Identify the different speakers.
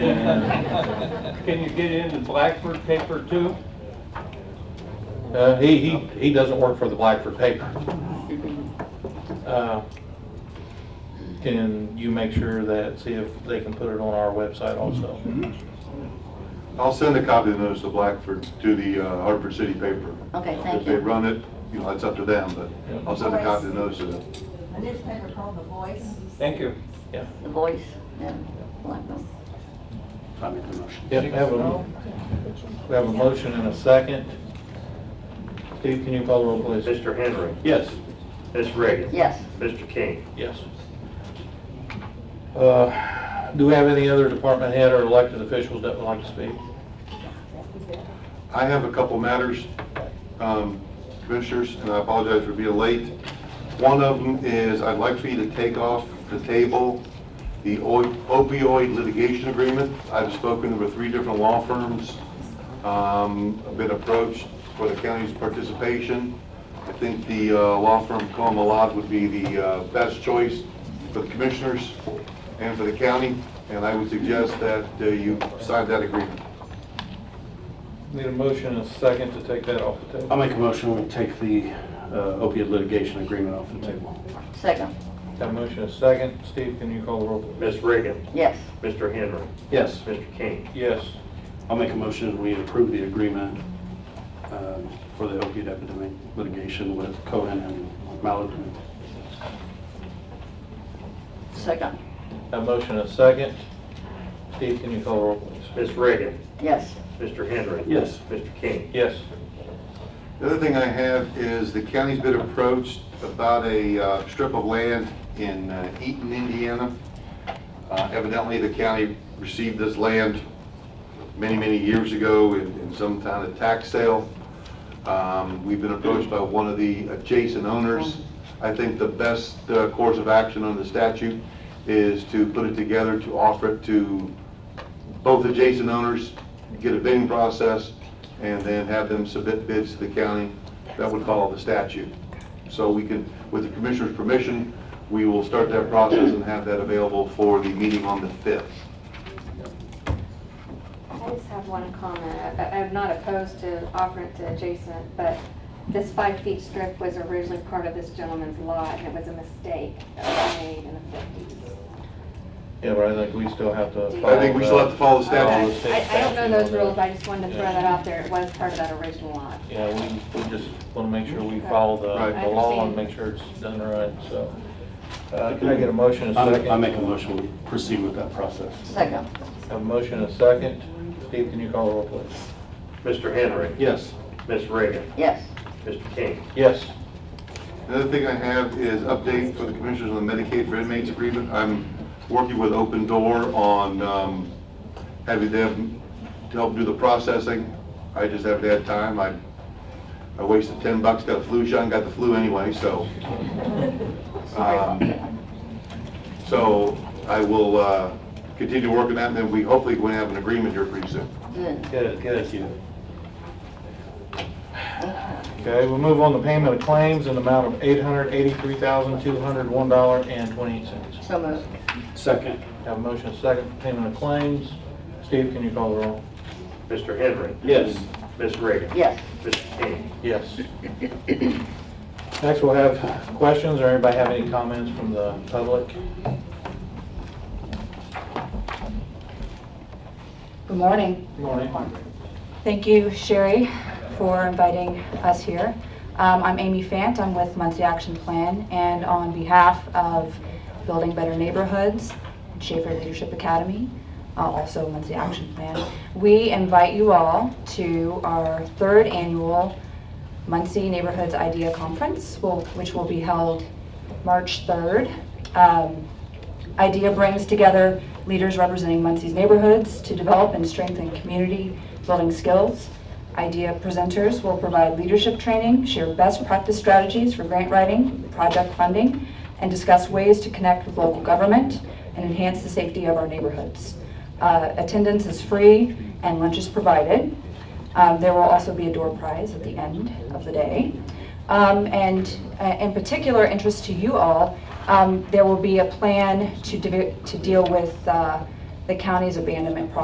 Speaker 1: Can you get into Blackford paper too?
Speaker 2: Uh, he, he, he doesn't work for the Blackford paper. Uh, Can you make sure that, see if they can put it on our website also?
Speaker 3: I'll send a copy of the notice to Blackford, to the uh, Hartford City paper.
Speaker 4: Okay, Oh, thank
Speaker 3: If they
Speaker 4: you.
Speaker 3: run it, you know, it's up to them, but I'll send a copy of the notice to them.
Speaker 5: A newspaper called The Voice.
Speaker 1: Thank you.
Speaker 2: Yeah.
Speaker 4: The voice, yeah, Blackburn.
Speaker 6: I make the motion.
Speaker 2: Yeah, we have a, we have a motion and a second. Steve, can you call the roll, please?
Speaker 7: Mr. Henry.
Speaker 2: Yes.
Speaker 7: Ms. Reagan.
Speaker 4: Yes,
Speaker 7: Mr. King.
Speaker 2: Yes. Uh, Do we have any other department head or elected officials that would like to speak?
Speaker 3: I have a couple matters, um, Commissioners, and I apologize for being late. One of them is I'd like for you to take off the table the opioid litigation agreement. I've spoken with three different law firms, um, I've been approached for the county's participation. I think the uh, law firm Comalot would be the uh, best choice for the commissioners and for the county, and I would suggest that uh, you sign that agreement.
Speaker 2: Need a motion and a second to take that off the
Speaker 6: I'll
Speaker 2: table.
Speaker 6: make a motion, we take the uh, opiate litigation agreement off the table.
Speaker 4: second,
Speaker 2: Got a motion and a second. Steve, can you call the roll, please?
Speaker 7: Ms. Reagan.
Speaker 4: yes,
Speaker 7: Mr. Henry.
Speaker 6: Yes,
Speaker 7: Mr. King.
Speaker 2: Yes.
Speaker 6: I'll make a motion, we approve the agreement um, for the opiate epidemic litigation with Cohen and Malibu.
Speaker 4: second,
Speaker 2: Got a motion and a second. Steve, can you call the roll, please?
Speaker 7: Ms. Reagan.
Speaker 4: yes,
Speaker 7: Mr. Henry.
Speaker 6: Yes.
Speaker 7: Mr. King.
Speaker 2: Yes.
Speaker 3: The other thing I have is the county's been approached about a uh, strip of land in uh, Eaton, Indiana. Uh, Evidently, the county received this land many, many years ago in in some kind of tax sale. Um, We've been approached by one of the adjacent owners. I think the best uh, course of action under statute is to put it together, to offer it to both adjacent owners, get a bidding process, and then have them submit bids to the county. That would follow the statute. So we can, with the commissioner's permission, we will start that process and have that available for the meeting on the 5th.
Speaker 8: I just have one comment. I- I'm not opposed to offering it to adjacent, but this five-feet strip was originally part of this gentleman's lot, and it was a mistake that was made in the fifties.
Speaker 2: Yeah, but I think we still have to.
Speaker 3: I think we still have to follow the statute.
Speaker 8: I I don't know those rules, I just wanted to throw that out there. It was part of that original lot.
Speaker 2: Yeah, we, we just want to make sure we follow the,
Speaker 3: Right.
Speaker 2: the law and make sure it's done right, so. Uh, can I get a motion and a
Speaker 6: I
Speaker 2: second?
Speaker 6: I make a motion, we proceed with that process.
Speaker 4: second,
Speaker 2: Have a motion and a second. Steve, can you call the roll, please?
Speaker 7: Mr. Henry.
Speaker 6: Yes,
Speaker 7: Ms. Reagan.
Speaker 4: yes,
Speaker 7: Mr. King.
Speaker 2: Yes.
Speaker 3: Another thing I have is update for the commissioners on the Medicaid for inmates agreement. I'm working with Open Door on um, having them to help do the processing. I just haven't had time. I I wasted 10 bucks, got a flu shot, and got the flu anyway, so. um, So I will uh, continue working that, and then we hopefully going to have an agreement here pretty soon.
Speaker 4: good,
Speaker 2: Good,
Speaker 6: thank you.
Speaker 2: Okay, we'll move on to payment of claims in the amount of eight hundred eighty-three thousand, two hundred one dollar and twenty-eight cents.
Speaker 4: so moved,
Speaker 6: Second,
Speaker 2: Have a motion and a second for payment of claims. Steve, can you call the roll?
Speaker 7: Mr. Henry.
Speaker 6: yes,
Speaker 7: Ms. Reagan.
Speaker 4: yes,
Speaker 7: Mr. King.
Speaker 2: Yes. Next, we'll have questions, or anybody have any comments from the public?
Speaker 9: Good morning.
Speaker 2: Good Morning.
Speaker 9: Thank you, Sherry, for inviting us here. Um, I'm Amy Fant, I'm with Muncie Action Plan, and on behalf of Building Better Neighborhoods, and Schaefer Leadership Academy, uh, also Muncie Action Plan, we invite you all to our third annual Muncie Neighborhoods Idea Conference, will- which will be held March 3rd. Um, IDEA brings together leaders representing Muncie's neighborhoods to develop and strengthen community building skills. IDEA presenters will provide leadership training, share best practice strategies for grant writing, project funding, and discuss ways to connect with local government and enhance the safety of our neighborhoods. Uh, Attendance is free and lunch is provided. Um, There will also be a door prize at the end of the day. Um, And uh, in particular interest to you all, um, there will be a plan to de- to deal with uh, the county's abandonment project